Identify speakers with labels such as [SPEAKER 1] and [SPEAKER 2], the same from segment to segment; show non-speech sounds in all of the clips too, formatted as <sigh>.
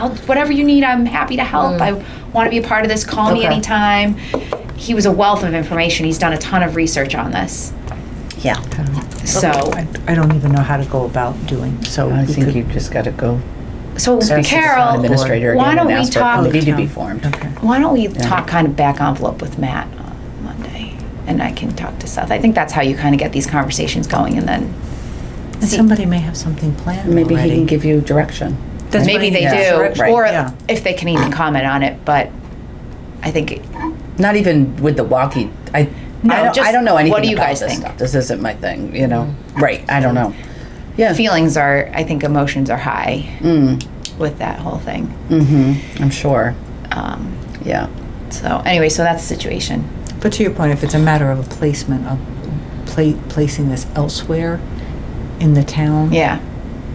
[SPEAKER 1] I'll, whatever you need, I'm happy to help. I want to be a part of this. Call me
[SPEAKER 2] Okay.
[SPEAKER 1] anytime. He was a wealth of information. He's done a ton of research on this.
[SPEAKER 2] Yeah.
[SPEAKER 1] So,
[SPEAKER 3] I, I don't even know how to go about doing, so.
[SPEAKER 4] I
[SPEAKER 3] we
[SPEAKER 4] think
[SPEAKER 3] could-
[SPEAKER 4] you've just got to go
[SPEAKER 1] so
[SPEAKER 4] speak to the town
[SPEAKER 1] Carol,
[SPEAKER 4] administrator
[SPEAKER 1] why
[SPEAKER 4] again
[SPEAKER 1] don't
[SPEAKER 4] and
[SPEAKER 1] we
[SPEAKER 4] ask for a
[SPEAKER 1] talk-
[SPEAKER 4] committee to be
[SPEAKER 3] Yeah.
[SPEAKER 4] formed.
[SPEAKER 3] Okay.
[SPEAKER 1] why don't we talk kind of back envelope with Matt on Monday, and I can talk to Seth. I think that's how you kind of get these conversations going, and then
[SPEAKER 3] And somebody may have something planned
[SPEAKER 4] Maybe he
[SPEAKER 3] already.
[SPEAKER 4] can give you direction.
[SPEAKER 3] That's what I
[SPEAKER 1] maybe they
[SPEAKER 3] mean,
[SPEAKER 1] do,
[SPEAKER 3] direction,
[SPEAKER 1] or
[SPEAKER 3] yeah.
[SPEAKER 1] if they can even comment on it. But I think it,
[SPEAKER 4] Not even with the walkie. I,
[SPEAKER 1] No,
[SPEAKER 4] I, don't,
[SPEAKER 1] just
[SPEAKER 4] I don't know
[SPEAKER 1] what
[SPEAKER 4] anything
[SPEAKER 1] do you
[SPEAKER 4] about
[SPEAKER 1] guys
[SPEAKER 4] this
[SPEAKER 1] think?
[SPEAKER 4] stuff. This isn't my thing, you know? Right, I don't know. Yeah.
[SPEAKER 1] feelings are, I think emotions are high
[SPEAKER 4] Mm,
[SPEAKER 1] with that whole thing.
[SPEAKER 4] mm-hmm, I'm sure,
[SPEAKER 1] Um,
[SPEAKER 4] yeah.
[SPEAKER 1] so anyway, so that's the situation.
[SPEAKER 3] But to your point, if it's a matter of a placement, of pla- placing this elsewhere in the town.
[SPEAKER 1] Yeah.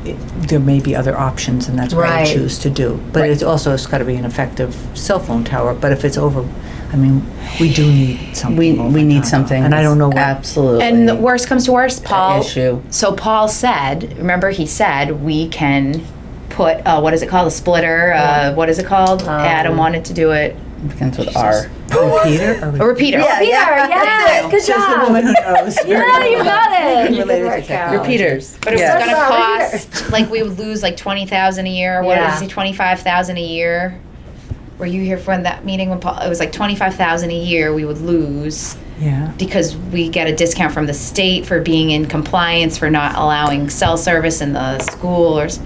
[SPEAKER 3] it- There may be other options and that's what I
[SPEAKER 2] Right.
[SPEAKER 3] choose to do. But
[SPEAKER 4] Right.
[SPEAKER 3] it's also, it's gotta be an effective cell phone tower, but if it's over, I mean, we do need something.
[SPEAKER 4] We,
[SPEAKER 3] over
[SPEAKER 4] we need
[SPEAKER 3] time.
[SPEAKER 4] something.
[SPEAKER 3] And I don't know what,
[SPEAKER 4] Absolutely.
[SPEAKER 1] And the worst comes to worst, Paul.
[SPEAKER 4] issue.
[SPEAKER 1] So Paul said, remember he said we can put uh, what is it called a splitter? Uh, what is it called? Adam wanted to do it.
[SPEAKER 4] Begins with R.
[SPEAKER 3] Peter? are we-
[SPEAKER 1] A repeater.
[SPEAKER 2] Yeah,
[SPEAKER 1] repeater.
[SPEAKER 2] yeah, that's it. Good
[SPEAKER 3] She's the
[SPEAKER 2] job.
[SPEAKER 3] woman who
[SPEAKER 1] <laughs>
[SPEAKER 3] knows. <laughs>
[SPEAKER 2] Yeah, you got
[SPEAKER 3] Related to
[SPEAKER 2] it.
[SPEAKER 3] technology.
[SPEAKER 4] Repeaters.
[SPEAKER 1] But it
[SPEAKER 4] Yeah.
[SPEAKER 1] was going to
[SPEAKER 2] That's all right
[SPEAKER 1] cost like we would lose like twenty thousand a year. What
[SPEAKER 2] Yeah.
[SPEAKER 1] is it? Twenty five thousand a year. Were you here for when that meeting when Paul? It was like twenty five thousand a year we would lose
[SPEAKER 3] Yeah.
[SPEAKER 1] because we get a discount from the state for being in compliance for not allowing cell service in the school or. s-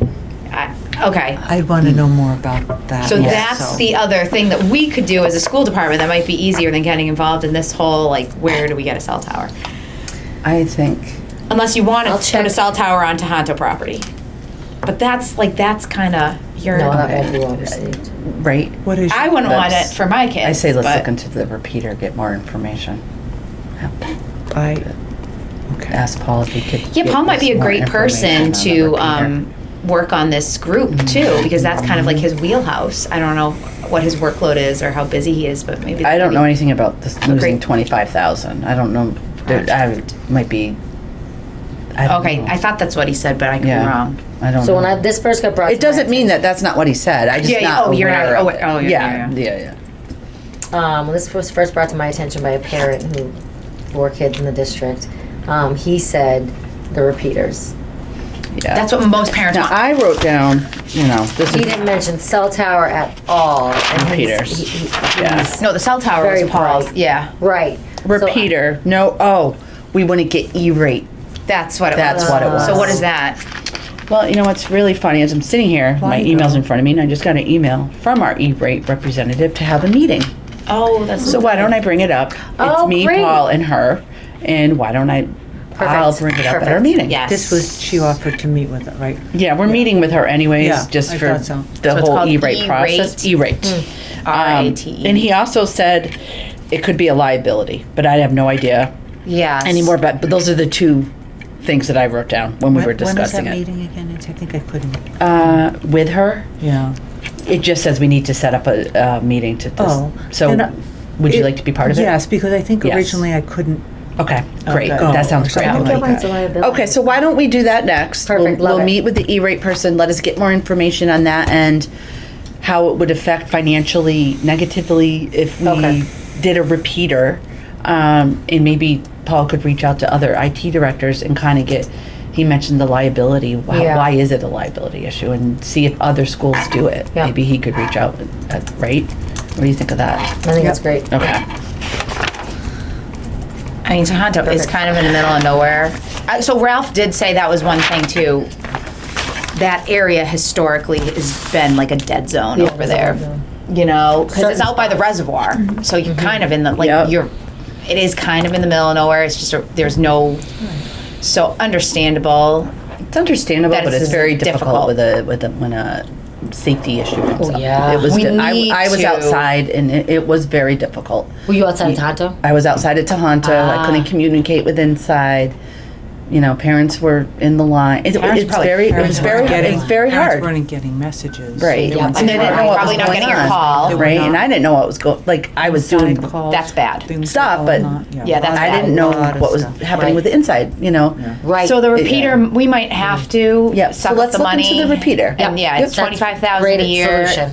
[SPEAKER 1] I- Okay.
[SPEAKER 3] I'd want
[SPEAKER 4] Hmm.
[SPEAKER 3] to know more about that.
[SPEAKER 1] So
[SPEAKER 3] also.
[SPEAKER 1] that's the other thing that we could do as a school department that might be easier than getting involved in this whole like where do we get a cell tower?
[SPEAKER 4] I think,
[SPEAKER 1] Unless you want
[SPEAKER 2] I'll
[SPEAKER 1] to put a
[SPEAKER 2] check.
[SPEAKER 1] cell tower on Tohoto property. But that's like that's kind of your.
[SPEAKER 2] No, that won't be overseen.
[SPEAKER 4] right?
[SPEAKER 3] What is?
[SPEAKER 1] I wouldn't want it
[SPEAKER 4] That's-
[SPEAKER 1] for my kids.
[SPEAKER 4] I say let's
[SPEAKER 1] but-
[SPEAKER 4] look into the repeater, get more information.
[SPEAKER 3] I. Okay.
[SPEAKER 4] Ask Paul if he could.
[SPEAKER 1] Yeah,
[SPEAKER 4] get
[SPEAKER 1] Paul might
[SPEAKER 4] us
[SPEAKER 1] be a
[SPEAKER 4] more
[SPEAKER 1] great person
[SPEAKER 4] information on the
[SPEAKER 1] to
[SPEAKER 4] repeater.
[SPEAKER 1] um, work on this group
[SPEAKER 4] Mm-hmm.
[SPEAKER 1] too, because that's kind of like his wheelhouse. I don't know what his workload is or how busy he is, but maybe.
[SPEAKER 4] I don't know
[SPEAKER 1] maybe-
[SPEAKER 4] anything about this losing
[SPEAKER 1] great-
[SPEAKER 4] twenty-five thousand. I don't know, there, I might be. I don't
[SPEAKER 1] Okay,
[SPEAKER 4] know.
[SPEAKER 1] I thought that's what he said, but I could be
[SPEAKER 4] Yeah.
[SPEAKER 1] wrong.
[SPEAKER 4] I don't
[SPEAKER 2] So when I,
[SPEAKER 4] know.
[SPEAKER 2] this first got brought.
[SPEAKER 4] It doesn't mean that that's not what he said, I
[SPEAKER 1] Yeah,
[SPEAKER 4] just
[SPEAKER 1] yeah,
[SPEAKER 4] not
[SPEAKER 1] oh, you're not
[SPEAKER 4] aware of
[SPEAKER 1] aware-
[SPEAKER 4] it.
[SPEAKER 1] oh, yeah, yeah,
[SPEAKER 4] Yeah, yeah, yeah.
[SPEAKER 2] Um, when this was first brought to my attention by a parent who, four kids in the district, um, he said the repeaters.
[SPEAKER 4] yeah.
[SPEAKER 1] That's what most parents
[SPEAKER 4] Now,
[SPEAKER 1] want.
[SPEAKER 4] I wrote down, you know, this
[SPEAKER 2] He
[SPEAKER 4] is,
[SPEAKER 2] didn't mention cell tower at all. and he's-
[SPEAKER 4] Repeaters.
[SPEAKER 2] he- he-
[SPEAKER 4] Yeah.
[SPEAKER 2] he's-
[SPEAKER 1] No, the cell tower
[SPEAKER 2] Very
[SPEAKER 1] was Paul's.
[SPEAKER 2] bright.
[SPEAKER 1] Yeah,
[SPEAKER 2] Right. So I-
[SPEAKER 4] repeater, no, oh, we wanna get E-rate.
[SPEAKER 1] that's what it
[SPEAKER 4] That's
[SPEAKER 1] was.
[SPEAKER 4] what it
[SPEAKER 1] So
[SPEAKER 4] was.
[SPEAKER 1] what is that?
[SPEAKER 4] Well, you know what's really funny is I'm sitting here, my
[SPEAKER 3] Why,
[SPEAKER 4] email's
[SPEAKER 3] though?
[SPEAKER 4] in front of me, and I just got an email from our E-rate representative to have a meeting.
[SPEAKER 1] Oh, that's
[SPEAKER 4] So why don't I bring it up? It's
[SPEAKER 2] Oh,
[SPEAKER 4] me,
[SPEAKER 2] great.
[SPEAKER 4] Paul, and her, and why don't I? I'll
[SPEAKER 2] Perfect,
[SPEAKER 4] bring it up at our
[SPEAKER 2] perfect.
[SPEAKER 4] meeting.
[SPEAKER 1] Yes.
[SPEAKER 3] This was she offered to meet with it, right?
[SPEAKER 4] Yeah, we're meeting with her anyways,
[SPEAKER 3] Yeah,
[SPEAKER 4] just
[SPEAKER 3] I
[SPEAKER 4] for
[SPEAKER 3] thought so.
[SPEAKER 4] the
[SPEAKER 1] So it's
[SPEAKER 4] whole
[SPEAKER 1] called
[SPEAKER 4] E-rate
[SPEAKER 1] E-rate?
[SPEAKER 4] process. E-rate. Um,
[SPEAKER 1] R.I.T..
[SPEAKER 4] and he also said it could be a liability, but I have no idea
[SPEAKER 1] yeah
[SPEAKER 4] anymore. But, but those are the two things that I wrote down when we were
[SPEAKER 3] When-
[SPEAKER 4] discussing
[SPEAKER 3] When was
[SPEAKER 4] it
[SPEAKER 3] that meeting again? It's, I think I couldn't.
[SPEAKER 4] uh, with her.
[SPEAKER 3] Yeah.
[SPEAKER 4] It just says we need to set up a, uh meeting to this.
[SPEAKER 3] Oh,
[SPEAKER 4] so
[SPEAKER 3] and I-
[SPEAKER 4] would you like to be part of it?
[SPEAKER 3] Yes, because I think
[SPEAKER 4] Yes.
[SPEAKER 3] originally I couldn't.
[SPEAKER 4] Okay, great.
[SPEAKER 3] Okay. Oh,
[SPEAKER 4] That sounds
[SPEAKER 3] Or
[SPEAKER 4] great.
[SPEAKER 3] something
[SPEAKER 2] I don't
[SPEAKER 3] like
[SPEAKER 2] know why it's a liability.
[SPEAKER 4] Okay, so why don't we do that next?
[SPEAKER 2] Perfect,
[SPEAKER 4] We'll,
[SPEAKER 2] love
[SPEAKER 4] we'll
[SPEAKER 2] it.
[SPEAKER 4] meet with the E-rate person. Let us get more information on that and how it would affect financially negatively if we
[SPEAKER 2] Okay.
[SPEAKER 4] did a repeater. Um, and maybe Paul could reach out to other IT directors and kind of get. He mentioned the liability. Why,
[SPEAKER 2] Yeah.
[SPEAKER 4] why is it a liability issue? And see if other schools do it.
[SPEAKER 2] Yeah.
[SPEAKER 4] Maybe he could reach out. uh, right? What do you think of that?
[SPEAKER 2] I think that's great.
[SPEAKER 4] Okay.
[SPEAKER 1] I mean, Tohoto is
[SPEAKER 2] Perfect.
[SPEAKER 1] kind of in the middle of nowhere. Uh, so Ralph did say that was one thing too. That area historically has been like a dead zone
[SPEAKER 2] Yeah,
[SPEAKER 1] over
[SPEAKER 2] it's a
[SPEAKER 1] there.
[SPEAKER 2] dead zone.
[SPEAKER 1] You know, because it's
[SPEAKER 2] Certain Mm-hmm.
[SPEAKER 1] out by the reservoir, so you're kind of in the like
[SPEAKER 4] Yep.
[SPEAKER 1] you're. It is kind of in the middle of nowhere. It's just a, there's no. So understandable.
[SPEAKER 4] It's understandable,
[SPEAKER 1] That
[SPEAKER 4] but
[SPEAKER 1] it's
[SPEAKER 4] it's very
[SPEAKER 1] difficult.
[SPEAKER 4] difficult with a, with a, when a safety issue comes
[SPEAKER 2] Oh,
[SPEAKER 4] up.
[SPEAKER 2] yeah.
[SPEAKER 4] It was,
[SPEAKER 1] We
[SPEAKER 4] di-
[SPEAKER 1] need
[SPEAKER 4] I, I was
[SPEAKER 1] to-
[SPEAKER 4] outside and it, it was very difficult.
[SPEAKER 2] Were you outside in Tonto?
[SPEAKER 4] I was outside at Tohoto, I couldn't communicate with inside. you know, parents were in the line. It,
[SPEAKER 3] Parents
[SPEAKER 4] it's
[SPEAKER 3] probably-
[SPEAKER 4] very, it
[SPEAKER 3] parents
[SPEAKER 4] was very,
[SPEAKER 3] weren't getting-
[SPEAKER 4] it's very
[SPEAKER 3] parents
[SPEAKER 4] hard.
[SPEAKER 3] weren't getting messages.
[SPEAKER 4] Right.
[SPEAKER 3] They weren't
[SPEAKER 1] And they
[SPEAKER 3] seeing-
[SPEAKER 1] didn't know what was
[SPEAKER 4] Probably not
[SPEAKER 1] going
[SPEAKER 4] getting your
[SPEAKER 1] on.
[SPEAKER 4] call.
[SPEAKER 1] They
[SPEAKER 3] were
[SPEAKER 4] Right,
[SPEAKER 3] not-
[SPEAKER 4] and I didn't know what was going, like, I was doing,
[SPEAKER 3] Side calls,
[SPEAKER 1] That's bad.
[SPEAKER 3] things
[SPEAKER 4] stuff,
[SPEAKER 3] that
[SPEAKER 4] but-
[SPEAKER 3] were not-
[SPEAKER 1] Yeah, that's
[SPEAKER 4] I
[SPEAKER 1] bad.
[SPEAKER 4] didn't know
[SPEAKER 3] A lot of
[SPEAKER 4] what was
[SPEAKER 3] stuff.
[SPEAKER 4] happening with the inside, you know?
[SPEAKER 3] Yeah.
[SPEAKER 2] Right.
[SPEAKER 1] So the
[SPEAKER 4] It-
[SPEAKER 1] repeater, we might have to
[SPEAKER 4] Yeah, so
[SPEAKER 1] suck up
[SPEAKER 4] let's
[SPEAKER 1] the
[SPEAKER 4] look
[SPEAKER 1] money.
[SPEAKER 4] into the repeater.
[SPEAKER 1] Yep, yeah,
[SPEAKER 4] Yep.
[SPEAKER 1] it's twenty-five thousand a
[SPEAKER 2] Great
[SPEAKER 1] year.
[SPEAKER 2] solution.